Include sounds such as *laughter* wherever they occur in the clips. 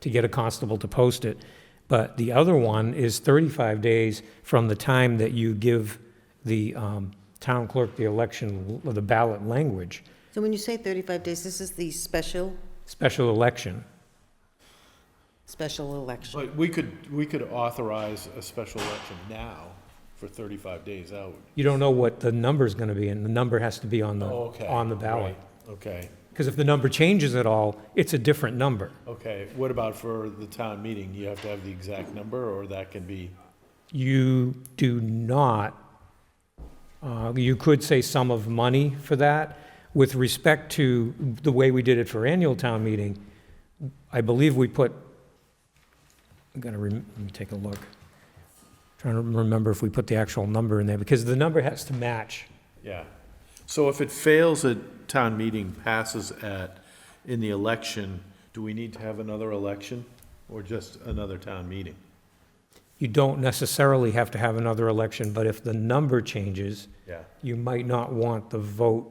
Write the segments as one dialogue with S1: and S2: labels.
S1: to get a constable to post it. But the other one is 35 days from the time that you give the um, town clerk the election, the ballot language,
S2: So when you say 35 days, this is the special,
S1: special election.
S2: special election?
S3: But we could, we could authorize a special election now for 35 days out.
S1: You don't know what the number's going to be, and the number has to be on the,
S3: Oh, okay.
S1: on the ballot.
S3: Right, Okay,
S1: Because if the number changes at all, it's a different number.
S3: okay. What about for the town meeting? You have to have the exact number, or that can be,
S1: You do not, uh, you could say sum of money for that. With respect to the way we did it for annual town meeting, I believe we put, I'm gonna, rem- let me take a look. Trying to remember if we put the actual number in there, because the number has to match.
S3: yeah. So if it fails at town meeting, passes at, in the election, do we need to have another election, or just another town meeting?
S1: You don't necessarily have to have another election, but if the number changes,
S3: Yeah,
S1: you might not want the vote.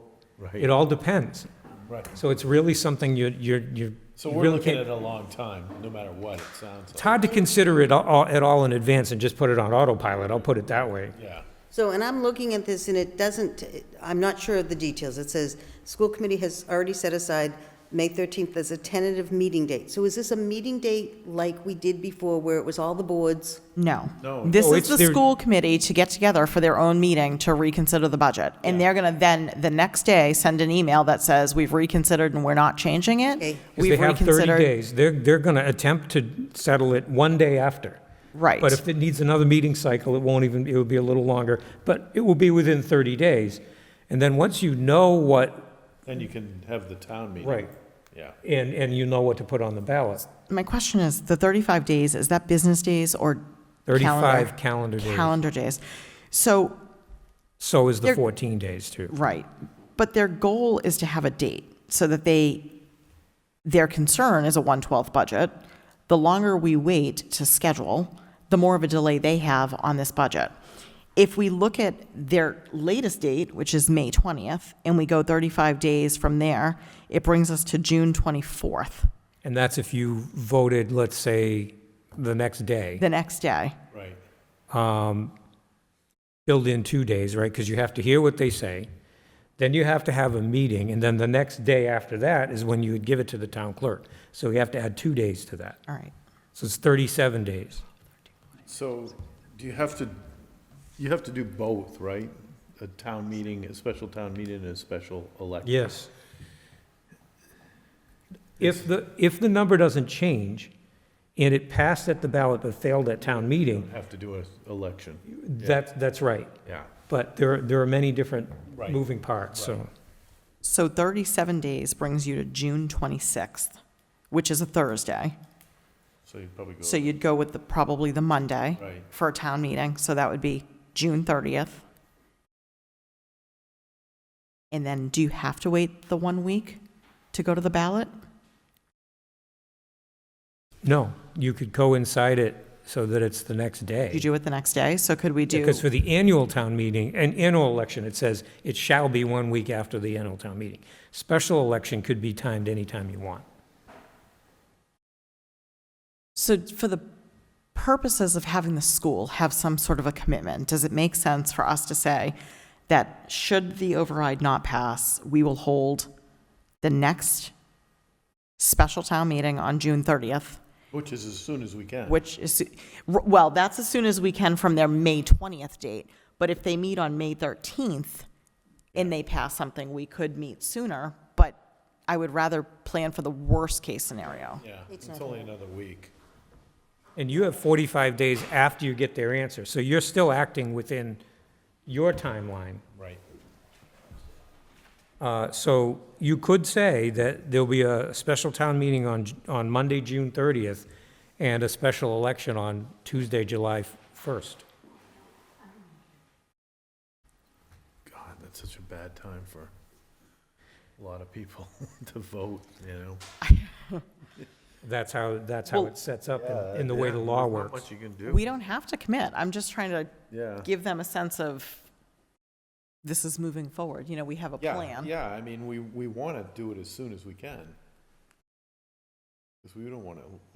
S1: It
S3: right,
S1: all depends.
S3: right.
S1: So it's really something you, you're, you're.
S3: So
S1: you
S3: we're
S1: really
S3: looking
S1: can't-
S3: at a long time, no matter what it sounds
S1: It's
S3: like.
S1: hard to consider it all, at all in advance and just put it on autopilot, I'll put it that way.
S3: Yeah,
S2: So, and I'm looking at this, and it doesn't, I'm not sure of the details. It says, "School committee has already set aside May 13th as a tentative meeting date." So is this a meeting date like we did before, where it was all the boards?
S4: No.
S3: No.
S4: This
S1: No, Oh,
S4: is
S1: it's
S4: the
S1: their-
S4: school committee to get together for their own meeting to reconsider the budget. And they're going to then, the next day, send an email that says, we've reconsidered and we're not changing
S2: Okay.
S4: it.
S1: 'Cause
S4: We've
S1: they have 30
S4: reconsidered.
S1: days, they're, they're gonna attempt to settle it one day after.
S4: Right.
S1: But if it needs another meeting cycle, it won't even, it'll be a little longer, but it will be within 30 days. And then once you know what,
S3: then you can have the town meeting.
S1: right,
S3: Yeah.
S1: and, and you know what to put on the ballot,
S4: My question is, the 35 days, is that business days or?
S1: 35 calendar days.
S4: Calendar days. So,
S1: so is the
S4: They're-
S1: 14 days too.
S4: right. But their goal is to have a date so that they, their concern is a 1/12 budget. The longer we wait to schedule, the more of a delay they have on this budget. If we look at their latest date, which is May 20th, and we go 35 days from there, it brings us to June 24th,
S1: And that's if you voted, let's say, the next day.
S4: the next day.
S3: Right.
S1: build in two days, right? Because you have to hear what they say, then you have to have a meeting, and then the next day after that is when you would give it to the town clerk. So you have to add two days to that.
S4: All right.
S1: So it's 37 days.
S3: So, do you have to, you have to do both, right? A town meeting, a special town meeting, and a special election?
S1: Yes. If the, if the number doesn't change, and it passed at the ballot but failed at town
S3: You
S1: meeting,
S3: Have to do an election,
S1: that's, that's right.
S3: yeah.
S1: But there, are- there are many different
S3: Right.
S1: moving parts, so.
S4: So 37 days brings you to June 26th, which is a Thursday.
S3: So you'd probably go.
S4: So you'd go with the, probably the Monday
S3: Right.
S4: for a town meeting, so that would be June 30th. And then do you have to wait the one week to go to the ballot?
S1: No, you could coincide it so that it's the next day.
S4: You do it the next day, so could we do,
S1: Because for the annual town meeting, an annual election, it says it shall be one week after the annual town meeting. Special election could be timed anytime you want.
S4: so for the purposes of having the school have some sort of a commitment, does it make sense for us to say that should the override not pass, we will hold the next special town meeting on June 30th?
S3: Which is as soon as we can.
S4: which is, r- well, that's as soon as we can from their May 20th date. But if they meet on May 13th and they pass something, we could meet sooner. But I would rather plan for the worst-case scenario.
S3: Yeah, it's only another week.
S1: And you have 45 days after you get their answer, so you're still acting within your timeline.
S3: Right.
S1: Uh, So you could say that there'll be a special town meeting on, on Monday, June 30th, and a special election on Tuesday, July 1st.
S3: God, that's such a bad time for a lot of people *laughs* to vote, you know?
S1: That's how, that's how
S4: Well-
S1: it sets up in- in the way the law
S3: Not
S1: works.
S3: much you can do.
S4: We don't have to commit. I'm just trying to
S3: Yeah.
S4: give them a sense of this is moving forward. You know, we have a
S3: Yeah,
S4: plan.
S3: Yeah, I mean, we, we want to do it as soon as we can. Because we don't want to